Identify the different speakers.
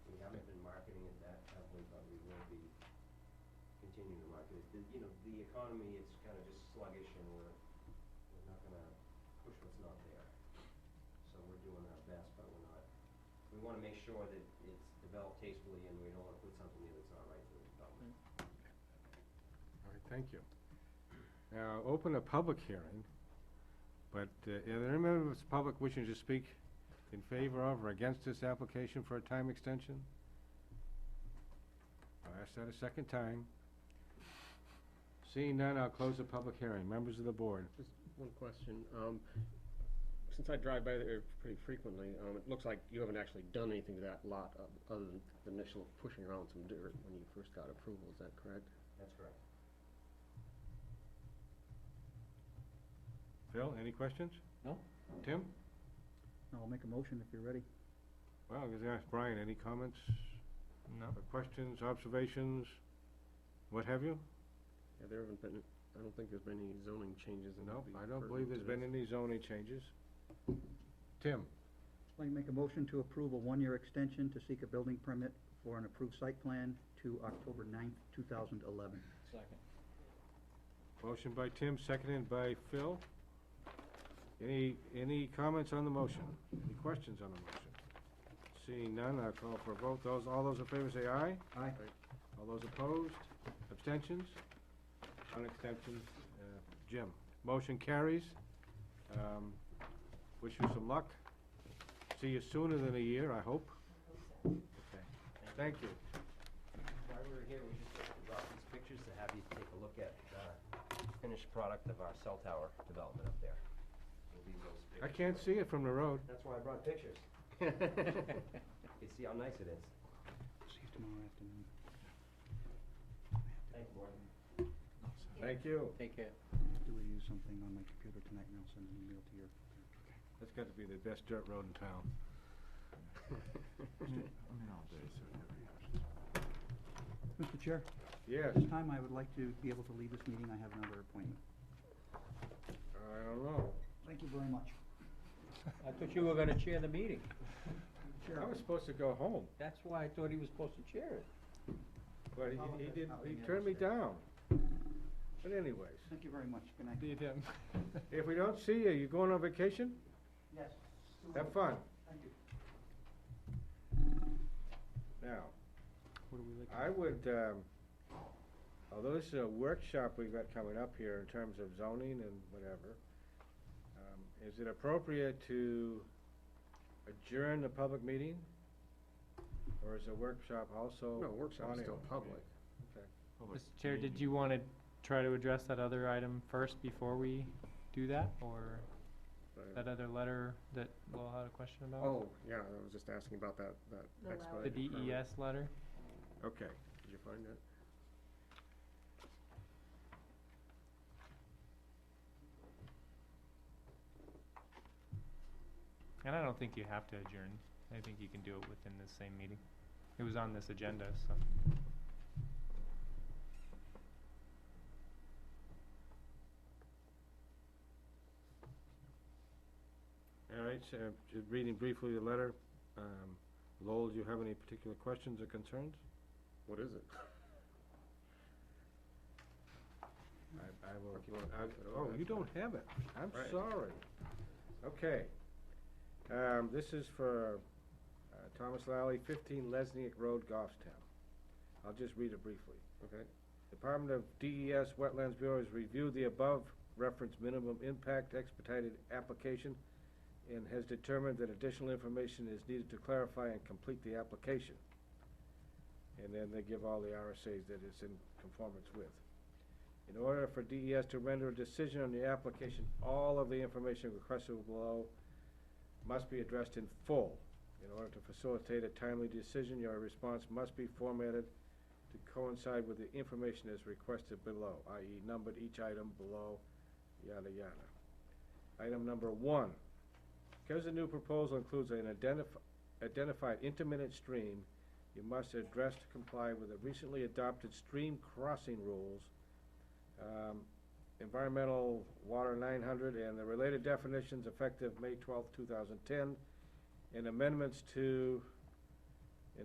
Speaker 1: continue to market it. The- You know, the economy, it's kind of just sluggish and we're, we're not gonna push what's not there. So we're doing our best, but we're not, we wanna make sure that it's developed tastefully and we don't wanna put something in that's not right for the development.
Speaker 2: All right, thank you. Now, open a public hearing, but uh, are there any members of the public wishing to speak in favor of or against this application for a time extension? I'll ask that a second time. Seeing none, I'll close the public hearing. Members of the board,
Speaker 3: One question, um, since I drive by there pretty frequently, um, it looks like you haven't actually done anything to that lot o- other than the initial pushing around some dirt when you first got approval, is that correct?
Speaker 1: That's correct.
Speaker 2: Phil, any questions?
Speaker 4: No.
Speaker 2: Tim?
Speaker 4: I'll make a motion if you're ready.
Speaker 2: Well, I'm gonna ask Brian, any comments? No. Questions, observations, what have you?
Speaker 3: Yeah, there haven't been, I don't think there's been any zoning changes that
Speaker 2: No,
Speaker 3: would be
Speaker 2: I don't
Speaker 3: pertinent
Speaker 2: believe
Speaker 3: to
Speaker 2: there's been
Speaker 3: this.
Speaker 2: any zoning changes. Tim?
Speaker 4: I'll make a motion to approve a one-year extension to seek a building permit for an approved site plan to October 9th, two thousand eleven.
Speaker 2: Motion by Tim, seconded by Phil. Any, any comments on the motion? Any questions on the motion? Seeing none, I'll call for a vote. Those, all those in favor say aye.
Speaker 4: Aye.
Speaker 2: All those opposed? Abstentions? One abstention. Uh, Jim, motion carries. Um, Wish you some luck. See you sooner than a year, I hope. Okay. Thank you.
Speaker 1: While we were here, we just brought these pictures to have you take a look at the finished product of our cell tower development up there. We'll leave those
Speaker 2: I
Speaker 1: pictures.
Speaker 2: can't see it from the road.
Speaker 1: That's why I brought pictures. You can see how nice it is.
Speaker 4: See you tomorrow afternoon.
Speaker 1: Thank you, Morgan.
Speaker 2: Thank you.
Speaker 4: Take care. Do we use something on my computer tonight and I'll send an email to your?
Speaker 2: That's got to be the best dirt road in town.
Speaker 4: Mr. Chair,
Speaker 2: Yes,
Speaker 4: this time I would like to be able to leave this meeting. I have another appointment.
Speaker 2: I don't know.
Speaker 4: Thank you very much.
Speaker 5: I thought you were gonna chair the meeting.
Speaker 2: I was supposed to go home,
Speaker 5: That's why I thought he was supposed to chair it.
Speaker 2: but
Speaker 4: Oh,
Speaker 2: he, he
Speaker 4: okay.
Speaker 2: didn't,
Speaker 4: Oh,
Speaker 2: he
Speaker 4: yeah,
Speaker 2: turned me
Speaker 4: that's right.
Speaker 2: down. But anyways,
Speaker 4: Thank you very much. Good night.
Speaker 2: if we don't see you, you going on vacation?
Speaker 4: Yes.
Speaker 2: Have fun.
Speaker 4: Thank you.
Speaker 2: Now,
Speaker 5: What do we like?
Speaker 2: I would, um, although this is a workshop we've got coming up here in terms of zoning and whatever, um, is it appropriate to adjourn the public meeting? Or is a workshop also?
Speaker 3: No, workshop's
Speaker 2: on
Speaker 3: still
Speaker 2: it?
Speaker 3: public.
Speaker 6: Mr. Chair, did you want to try to address that other item first before we do that, or
Speaker 3: but-
Speaker 6: that other letter that Lowell had a question about?
Speaker 3: Oh, yeah, I was just asking about that, that
Speaker 6: The E
Speaker 3: expedited permit.
Speaker 6: DES letter?
Speaker 2: Okay.
Speaker 3: Did you find that?
Speaker 6: And I don't think you have to adjourn. I think you can do it within the same meeting. It was on this agenda, so.
Speaker 2: All right, so just reading briefly the letter. Um, Lowell, do you have any particular questions or concerns?
Speaker 3: What is it?
Speaker 2: I, I will,
Speaker 3: If you want-
Speaker 2: I-
Speaker 3: Oh,
Speaker 2: oh, you
Speaker 3: that's
Speaker 2: don't have it. I'm
Speaker 3: Right.
Speaker 2: sorry. Okay. Um, this is for, uh, Thomas Lally, fifteen Lesniak Road, Goffstown. I'll just read it briefly.
Speaker 3: Okay,
Speaker 2: Department of DES Wetlands Bureau has reviewed the above referenced minimum impact expedited application and has determined that additional information is needed to clarify and complete the application. And then they give all the RSAs that it's in conformance with. In order for DES to render a decision on the application, all of the information requested below must be addressed in full. In order to facilitate a timely decision, your response must be formatted to coincide with the information as requested below, i.e. numbered each item below, yada, yada. Item number one, because the new proposal includes an identif- identified intermittent stream, you must address to comply with the recently adopted stream crossing rules, um, environmental water nine hundred and the related definitions effective May twelfth, two thousand ten, and amendments to